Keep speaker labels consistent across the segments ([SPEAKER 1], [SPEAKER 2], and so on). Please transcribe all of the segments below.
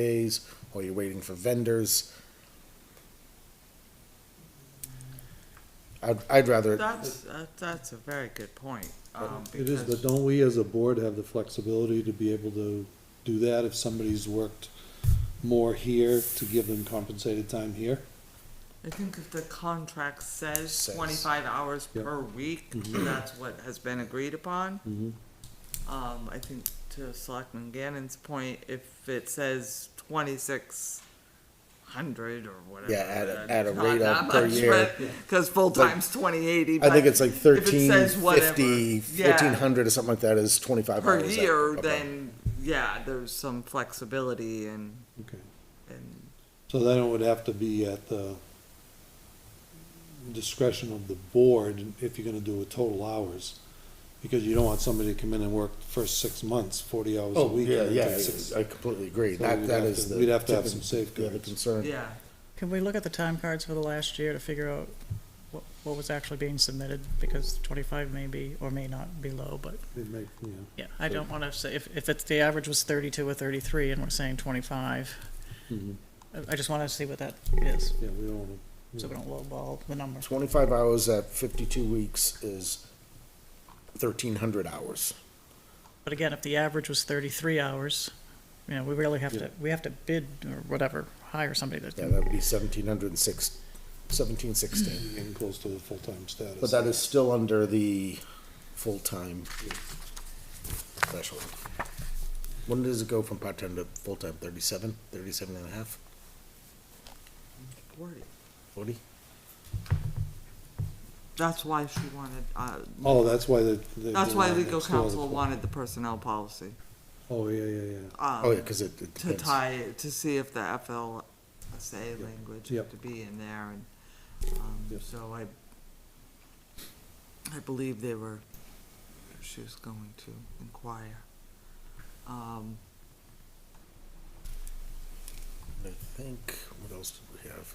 [SPEAKER 1] days, or you're waiting for vendors. I'd, I'd rather,
[SPEAKER 2] That's, that- that's a very good point. um,
[SPEAKER 3] It is, but
[SPEAKER 2] because-
[SPEAKER 3] don't we as a board have the flexibility to be able to do that if somebody's worked more here to give them compensated time here?
[SPEAKER 2] I think if the contract
[SPEAKER 1] Says.
[SPEAKER 2] says
[SPEAKER 1] Mm-hmm.
[SPEAKER 2] twenty-five hours
[SPEAKER 3] Yep.
[SPEAKER 2] per week, that's what has been agreed upon.
[SPEAKER 3] Mhm.
[SPEAKER 2] Um, I think to Selectman Gannon's point, if it says twenty-six hundred or whatever.
[SPEAKER 1] Yeah, at a-
[SPEAKER 2] that's
[SPEAKER 1] at a
[SPEAKER 2] not
[SPEAKER 1] rate
[SPEAKER 2] that
[SPEAKER 1] of per
[SPEAKER 2] much,
[SPEAKER 1] year.
[SPEAKER 2] but- Cause full-time's twenty eighty.
[SPEAKER 1] I think it's like thirteen fifty, fourteen
[SPEAKER 2] Yeah,
[SPEAKER 1] hundred or something like that is twenty-five
[SPEAKER 2] per
[SPEAKER 1] hours. that-
[SPEAKER 2] year,
[SPEAKER 1] above.
[SPEAKER 2] then, yeah, there's some flexibility and,
[SPEAKER 3] Okay,
[SPEAKER 2] and
[SPEAKER 3] so then it would have to be at the discretion of the board if you're gonna do a total hours. Because you don't want somebody to come in and work the first six months, forty hours a
[SPEAKER 1] Oh,
[SPEAKER 3] week.
[SPEAKER 1] yeah,
[SPEAKER 3] and
[SPEAKER 1] yeah,
[SPEAKER 3] get six-
[SPEAKER 1] I completely agree.
[SPEAKER 3] So
[SPEAKER 1] That,
[SPEAKER 3] we'd
[SPEAKER 1] that
[SPEAKER 3] have
[SPEAKER 1] is
[SPEAKER 3] to-
[SPEAKER 1] the.
[SPEAKER 3] we'd have to have
[SPEAKER 1] typical-
[SPEAKER 3] some
[SPEAKER 1] yeah, The
[SPEAKER 3] safeguards.
[SPEAKER 1] concern.
[SPEAKER 2] Yeah,
[SPEAKER 4] Can we look at the time cards for the last year to figure out what, what was actually being submitted? Because twenty-five may be, or may not be low, but,
[SPEAKER 3] It might, you know.
[SPEAKER 4] yeah, I don't wanna say, if, if it's, the average was thirty-two or thirty-three and we're saying twenty-five,
[SPEAKER 1] Mm-hmm.
[SPEAKER 3] Mhm.
[SPEAKER 4] I, I just wanna see what that is,
[SPEAKER 3] Yeah, we don't wanna,
[SPEAKER 4] so we don't lowball the number.
[SPEAKER 1] Twenty-five hours at fifty-two weeks is thirteen hundred hours.
[SPEAKER 4] But again, if the average was thirty-three hours, you know, we really have
[SPEAKER 3] Yeah.
[SPEAKER 4] to, we have to bid or whatever, hire somebody that
[SPEAKER 1] Yeah,
[SPEAKER 4] can,
[SPEAKER 1] that would be seventeen hundred and six, seventeen sixteen.
[SPEAKER 3] be getting close to the full-time status.
[SPEAKER 1] But that is still under the full-time threshold. When does it go from part-time to full-time? Thirty-seven, thirty-seven and a half,
[SPEAKER 2] forty.
[SPEAKER 1] forty?
[SPEAKER 2] That's why she wanted, uh,
[SPEAKER 3] Oh, that's why the. the-
[SPEAKER 2] that's
[SPEAKER 3] the
[SPEAKER 2] why
[SPEAKER 3] line
[SPEAKER 2] legal
[SPEAKER 3] next door, the
[SPEAKER 2] counsel
[SPEAKER 3] full-
[SPEAKER 2] wanted the personnel policy.
[SPEAKER 3] Oh, yeah, yeah, yeah.
[SPEAKER 2] um,
[SPEAKER 1] Oh, yeah, cause it it
[SPEAKER 2] To
[SPEAKER 1] depends.
[SPEAKER 2] tie, to see if the FLSA language had
[SPEAKER 3] Yep.
[SPEAKER 2] to be in there and, um,
[SPEAKER 3] Yes.
[SPEAKER 2] so I, I believe they were, she was going to inquire. Um,
[SPEAKER 1] I think, what else did we have?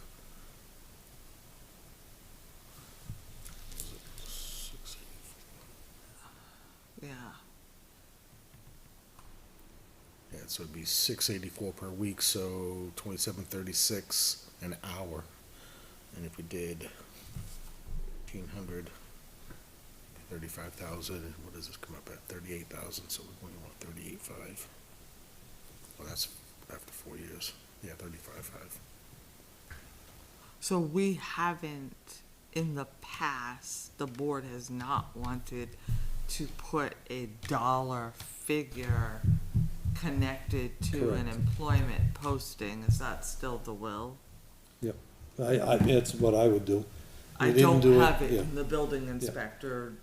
[SPEAKER 1] Was it six,
[SPEAKER 2] yeah,
[SPEAKER 1] eight? Yeah, so it'd be six eighty-four per week, so twenty-seven thirty-six an hour. And if we did eighteen hundred, thirty-five thousand, what does this come up at? Thirty-eight thousand, so we're going to want thirty-eight five. Well, that's after four years. Yeah, thirty-five five.
[SPEAKER 2] so we haven't, in the past, the board has not wanted to put a dollar figure connected to an
[SPEAKER 3] Correct.
[SPEAKER 2] employment posting, is that still the will?
[SPEAKER 3] I, I, that's what I would do.
[SPEAKER 2] I
[SPEAKER 3] We didn't
[SPEAKER 2] don't
[SPEAKER 3] do it-
[SPEAKER 2] have it
[SPEAKER 3] yeah.
[SPEAKER 2] in the building inspector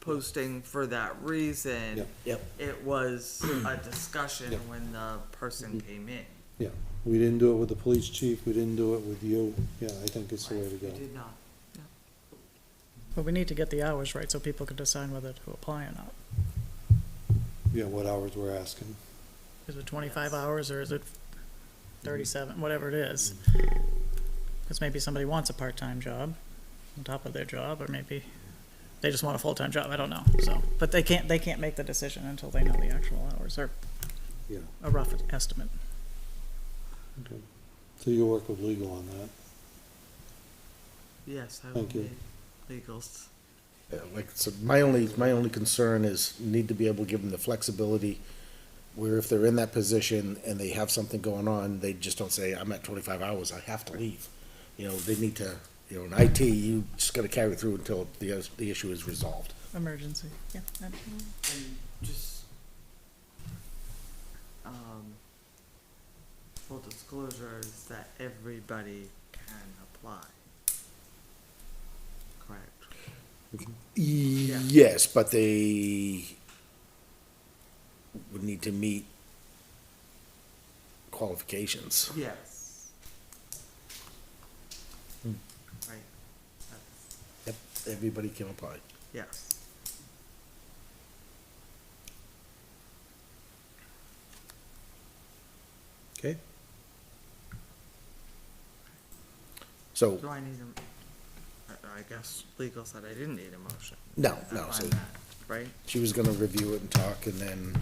[SPEAKER 2] posting for that
[SPEAKER 3] Yeah.
[SPEAKER 2] reason.
[SPEAKER 1] Yep.
[SPEAKER 2] It was a discussion
[SPEAKER 3] Yeah. Mm-hmm.
[SPEAKER 2] when the person came in.
[SPEAKER 3] Yeah, we didn't do it with the police chief, we didn't do it with you. Yeah, I think it's the way to
[SPEAKER 2] We
[SPEAKER 3] go.
[SPEAKER 2] did not.
[SPEAKER 4] but we need to get the hours right so people can decide whether to apply or not.
[SPEAKER 3] Yeah, what hours we're asking.
[SPEAKER 4] Is it twenty-five
[SPEAKER 2] Yes.
[SPEAKER 4] hours or is it thirty-seven, whatever it is? Because maybe somebody wants a part-time job on top of their job, or maybe they just want a full-time job, I don't know, so. But they can't, they can't make the decision until they know the actual hours or
[SPEAKER 3] Yeah.
[SPEAKER 4] a rough estimate.
[SPEAKER 3] Okay. So you'll work with legal on that.
[SPEAKER 2] Yes, I would
[SPEAKER 3] Thank
[SPEAKER 2] be
[SPEAKER 3] you.
[SPEAKER 2] legals.
[SPEAKER 1] Yeah, Uh, like, so my only, my only concern is need to be able to give them the flexibility where if they're in that position and they have something going on, they just don't say, I'm at twenty-five hours, I have to leave. You know, they need to, you know, in IT, you just gotta carry through until the, is- the issue is resolved.
[SPEAKER 4] Emergency, yeah. and-
[SPEAKER 2] And just, um, full disclosure is that everybody can apply. Correct.
[SPEAKER 1] Yes, but they would need to meet qualifications.
[SPEAKER 2] Yes.
[SPEAKER 1] Hmm.
[SPEAKER 2] Right, that's,
[SPEAKER 1] Yep, everybody can apply.
[SPEAKER 2] yes.
[SPEAKER 3] Okay.
[SPEAKER 1] So,
[SPEAKER 2] Do I need a, I, I guess legal said I didn't need a motion.
[SPEAKER 1] no, no,
[SPEAKER 2] On
[SPEAKER 1] so
[SPEAKER 2] that, Right?
[SPEAKER 1] she was gonna review it and talk and then